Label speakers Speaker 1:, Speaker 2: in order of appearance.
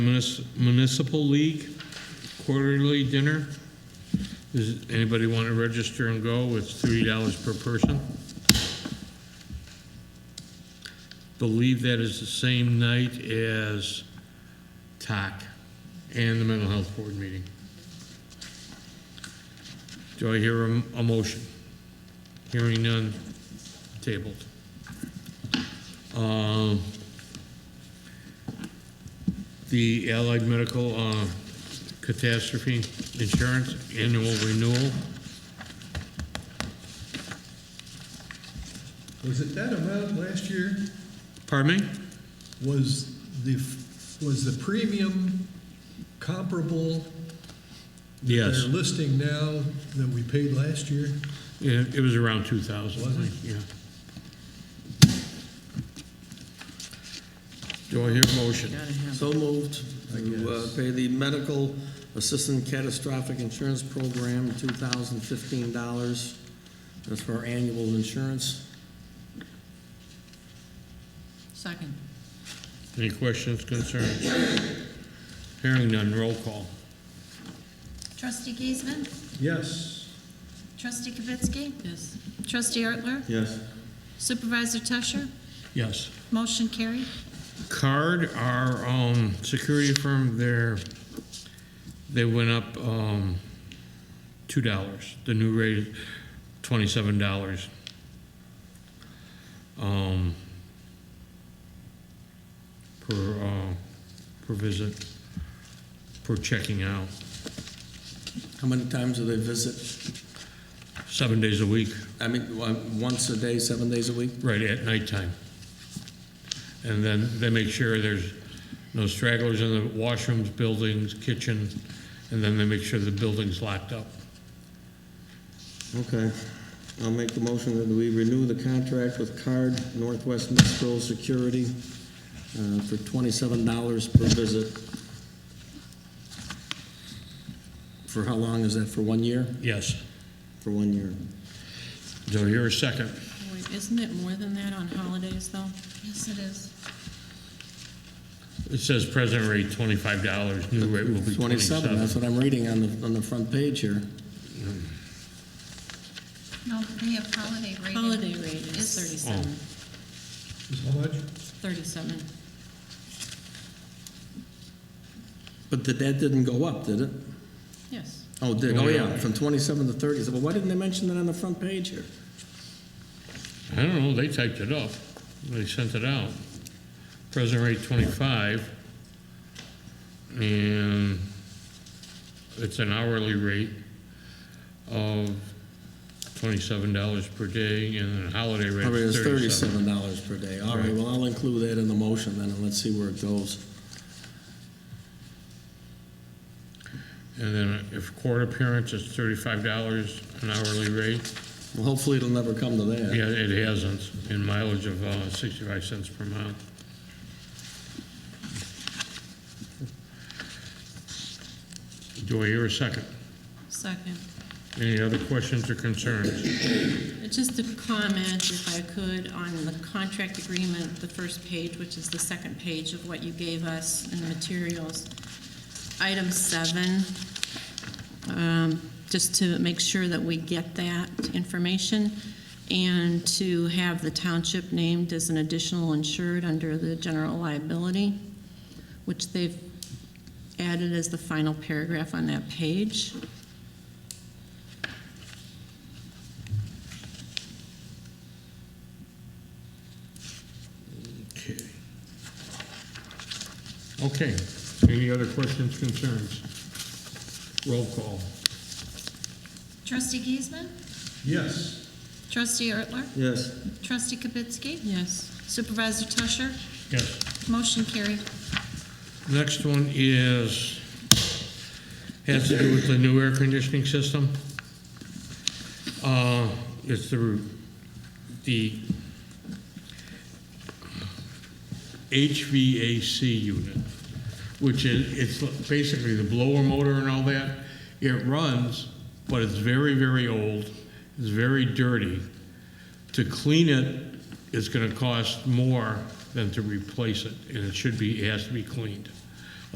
Speaker 1: Munis- Municipal League quarterly dinner. Does anybody want to register and go? It's three dollars per person. Believe that is the same night as TAC and the mental health board meeting. Do I hear a, a motion? Hearing none, tabled. Um, the Allied Medical uh, Catastrophe Insurance Annual Renewal.
Speaker 2: Was it that amount last year?
Speaker 1: Pardon me?
Speaker 2: Was the, was the premium comparable?
Speaker 1: Yes,
Speaker 2: They're listing now that we paid last year?
Speaker 1: Yeah, it was around 2,000.
Speaker 2: Was it?
Speaker 1: Yeah. Do I hear a motion?
Speaker 3: So moved to uh, pay the medical assistant catastrophic insurance program, $2,015. That's for our annual insurance.
Speaker 4: Second.
Speaker 1: Any questions, concerns? Hearing none, roll call.
Speaker 5: Trustee Giesman?
Speaker 2: Yes.
Speaker 5: Trustee Kavitsky?
Speaker 4: Yes.
Speaker 5: Trustee Ertler?
Speaker 3: Yes.
Speaker 5: Supervisor Tusher?
Speaker 1: Yes.
Speaker 5: Motion carried.
Speaker 1: Card, our um, security firm, they're, they went up um, $2. The new rate is $27. um, Per, uh, per visit, per checking out,
Speaker 3: How many times do they visit?
Speaker 1: seven days a week,
Speaker 3: I mean, on- once a day, seven days a week?
Speaker 1: right at nighttime. And then they make sure there's no stragglers in the washrooms, buildings, kitchen, and then they make sure the building's locked up.
Speaker 3: Okay. I'll make the motion that we renew the contract with Card Northwest Metro Security uh, for $27 per visit. For how long is that? For one year?
Speaker 1: Yes.
Speaker 3: For one year.
Speaker 1: Do I hear a second?
Speaker 4: Wait, isn't it more than that on holidays, though?
Speaker 5: Yes, it is.
Speaker 1: It says present rate $25, new rate will be
Speaker 3: 27, that's
Speaker 1: 27.
Speaker 3: what I'm reading on the, on the front page here.
Speaker 5: No, we have holiday rating.
Speaker 4: Holiday rate is
Speaker 5: It's-
Speaker 4: 37.
Speaker 2: Is how much?
Speaker 4: 37.
Speaker 3: But the that didn't go up, did it?
Speaker 4: Yes.
Speaker 3: Oh, it did, oh yeah, from 27 to 30. So, Well, why didn't they mention that on the front page here?
Speaker 1: I don't know, they typed it up, they sent it out. Present rate 25, and it's an hourly rate of $27 per day, and a holiday rate
Speaker 3: I mean,
Speaker 1: of
Speaker 3: it's
Speaker 1: 37.
Speaker 3: $37 per day. All right,
Speaker 1: Right.
Speaker 3: well, I'll include that in the motion then, and let's see where it goes.
Speaker 1: And then if court appearance, it's $35 an hourly rate.
Speaker 3: Well, hopefully it'll never come to that.
Speaker 1: Yeah, it hasn't, in mileage of uh, 65 cents per mile. Do I hear a second?
Speaker 4: Second.
Speaker 1: Any other questions or concerns?
Speaker 4: Just a comment, if I could, on the contract agreement, the first page, which is the second page of what you gave us in the materials. Item seven, um, just to make sure that we get that information and to have the township named as an additional insured under the general liability, which they've added as the final paragraph on that page.
Speaker 1: Okay. Okay, any other questions, concerns? Roll call.
Speaker 5: Trustee Giesman?
Speaker 2: Yes.
Speaker 5: Trustee Ertler?
Speaker 3: Yes.
Speaker 5: Trustee Kavitsky?
Speaker 4: Yes.
Speaker 5: Supervisor Tusher?
Speaker 1: Yes.
Speaker 5: Motion carried.
Speaker 1: Next one is, has to do with the new air conditioning system. Uh, It's the, the HVAC unit, which is, it's basically the blower motor and all that. It runs, but it's very, very old, it's very dirty. To clean it is gonna cost more than to replace it, and it should be, it has to be cleaned.